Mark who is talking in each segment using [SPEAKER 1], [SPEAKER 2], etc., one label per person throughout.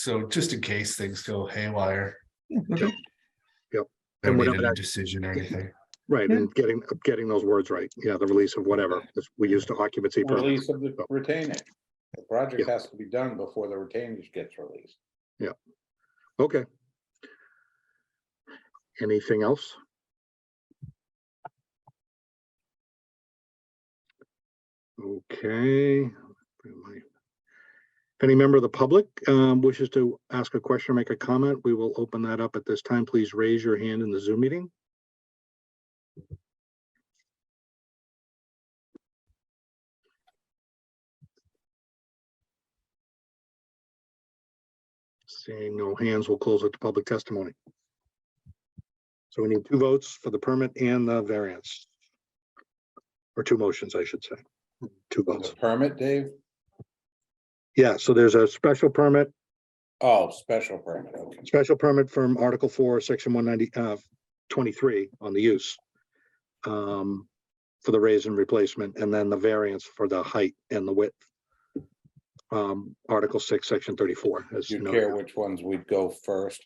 [SPEAKER 1] So just in case things go haywire.
[SPEAKER 2] okay. Yep.
[SPEAKER 1] I
[SPEAKER 2] And
[SPEAKER 1] don't need
[SPEAKER 2] whatever
[SPEAKER 1] a
[SPEAKER 2] that-
[SPEAKER 1] decision or anything.
[SPEAKER 2] Right,
[SPEAKER 3] Yeah.
[SPEAKER 2] and getting, getting those words right, yeah, the release of whatever, is- we used to occupancy permit,
[SPEAKER 4] Release of the retainage. The project has to be done before the retainage gets released.
[SPEAKER 2] okay. Anything else? Okay. If any member of the public um, wishes to ask a question or make a comment, we will open that up at this time. Please raise your hand in the Zoom meeting. Seeing no hands, we'll close it to public testimony. So we need two votes for the permit and the variance. Or two motions, I should say. Two votes.
[SPEAKER 4] The permit, Dave?
[SPEAKER 2] Yeah, so there's a special permit,
[SPEAKER 4] Oh, special permit, okay.
[SPEAKER 2] special permit from Article four, section one ninety, uh, twenty-three on the use. Um, for the raise and replacement, and then the variance for the height and the width. Um, Article six, section thirty-four. as
[SPEAKER 4] Do you
[SPEAKER 2] noted.
[SPEAKER 4] care which ones we'd go first?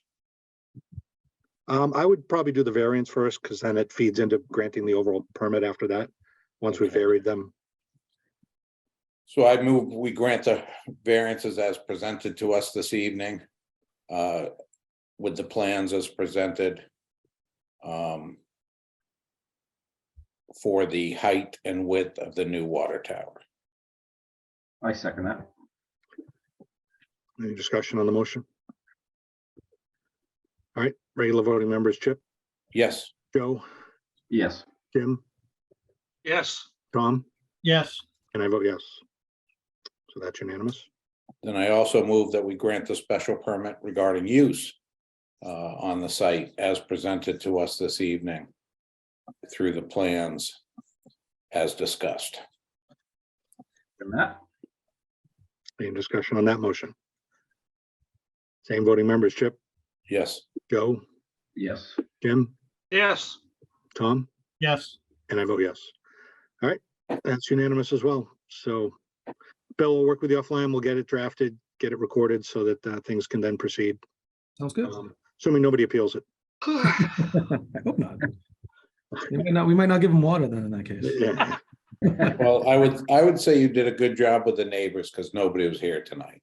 [SPEAKER 2] Um, I would probably do the variance first, because then it feeds into granting the overall permit after that, once we've
[SPEAKER 4] Okay.
[SPEAKER 2] varied them.
[SPEAKER 4] So I move, we grant the variances as presented to us this evening. uh, With the plans as presented. um, For the height and width of the new water tower.
[SPEAKER 5] I second that.
[SPEAKER 2] Any discussion on the motion? All right, regular voting members, Chip,
[SPEAKER 4] Yes,
[SPEAKER 2] Joe,
[SPEAKER 5] Yes,
[SPEAKER 2] Jim,
[SPEAKER 6] Yes.
[SPEAKER 2] Tom,
[SPEAKER 3] Yes,
[SPEAKER 2] and I vote yes. So that's unanimous.
[SPEAKER 4] then I also move that we grant the special permit regarding use uh, on the site as presented to us this evening through the plans as discussed.
[SPEAKER 5] and that,
[SPEAKER 2] Any discussion on that motion? Same voting members, Chip,
[SPEAKER 4] Yes,
[SPEAKER 2] Joe,
[SPEAKER 5] yes,
[SPEAKER 2] Jim,
[SPEAKER 6] Yes.
[SPEAKER 2] Tom,
[SPEAKER 3] yes,
[SPEAKER 2] and I vote yes. All right, that's unanimous as well. So Bill will work with you offline. We'll get it drafted, get it recorded so that uh, things can then proceed.
[SPEAKER 3] sounds good.
[SPEAKER 2] Um, Assuming nobody appeals it.
[SPEAKER 3] I hope not. We might not, we might not give them water then in that case.
[SPEAKER 2] Yeah.
[SPEAKER 4] well, I would, I would say you did a good job with the neighbors because nobody was here tonight.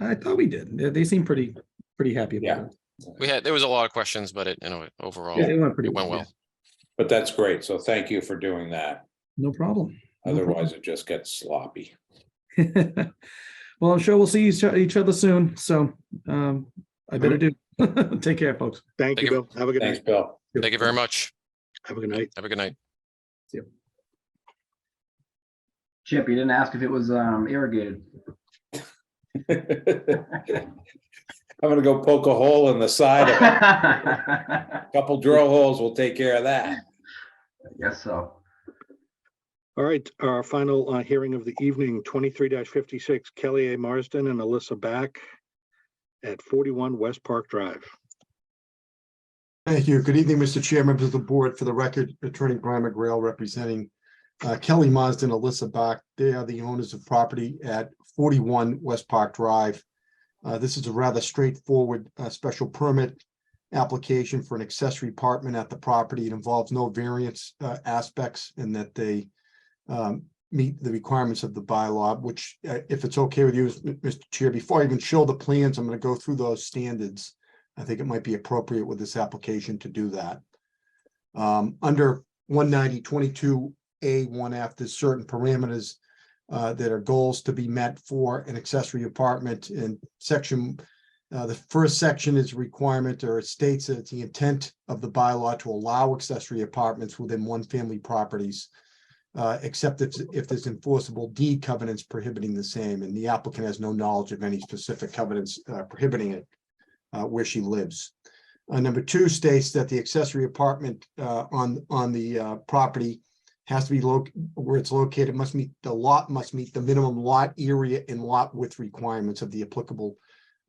[SPEAKER 3] I thought we did. They, they seem pretty, pretty happy
[SPEAKER 4] Yeah.
[SPEAKER 3] about it.
[SPEAKER 7] We had, there was a lot of questions, but it, you know, overall,
[SPEAKER 3] Yeah, It
[SPEAKER 7] it
[SPEAKER 3] went pretty.
[SPEAKER 7] went
[SPEAKER 3] yeah.
[SPEAKER 7] well.
[SPEAKER 4] But that's great, so thank you for doing that.
[SPEAKER 3] No problem. No problem.
[SPEAKER 4] Otherwise, it just gets sloppy.
[SPEAKER 3] Well, I'm sure we'll see each, each other soon, so, um, I better do. Take care, folks.
[SPEAKER 2] Thank you,
[SPEAKER 7] Thank you.
[SPEAKER 2] Bill. Have a good
[SPEAKER 4] Thanks,
[SPEAKER 2] night.
[SPEAKER 4] Bill.
[SPEAKER 7] Thank you very much.
[SPEAKER 2] Have a good night.
[SPEAKER 7] Have a good night.
[SPEAKER 5] Chip, you didn't ask if it was um irrigated.
[SPEAKER 4] I'm gonna go poke a hole in the side of it.
[SPEAKER 5] I
[SPEAKER 4] Couple drill holes will take care of that.
[SPEAKER 5] guess so.
[SPEAKER 2] All right, our final uh, hearing of the evening, twenty-three fifty-six, Kelly A. Marsden and Alyssa Back at forty-one West Park Drive.
[SPEAKER 8] Thank you. Good evening, Mr. Chair, members of the board. For the record, Attorney Brian McGrail representing uh, Kelly Mazda and Alyssa Bach. They are the owners of property at 41 West Park Drive. Uh, This is a rather straightforward uh, special permit application for an accessory apartment at the property. It involves no variance uh, aspects in that they um, meet the requirements of the bylaw, which uh, if it's okay with you, Mr. Chair, before I even show the plans, I'm going to go through those standards. I think it might be appropriate with this application to do that. Um, under one ninety twenty-two A one F, there's certain parameters uh, that are goals to be met for an accessory apartment in section. uh, the first section is requirement or it states that it's the intent of the bylaw to allow accessory apartments within one-family properties. uh, except if, if there's enforceable deed covenants prohibiting the same, and the applicant has no knowledge of any specific covenants uh, prohibiting it uh, where she lives. Uh, number two states that the accessory apartment, uh, on, on the, uh, property has to be loc, where it's located must meet, the lot must meet the minimum lot area and lot width requirements of the applicable,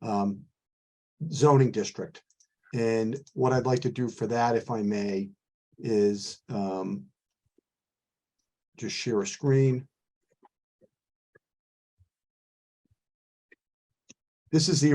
[SPEAKER 8] um, zoning district. And what I'd like to do for that, if I may, is, um, just share a screen. This is the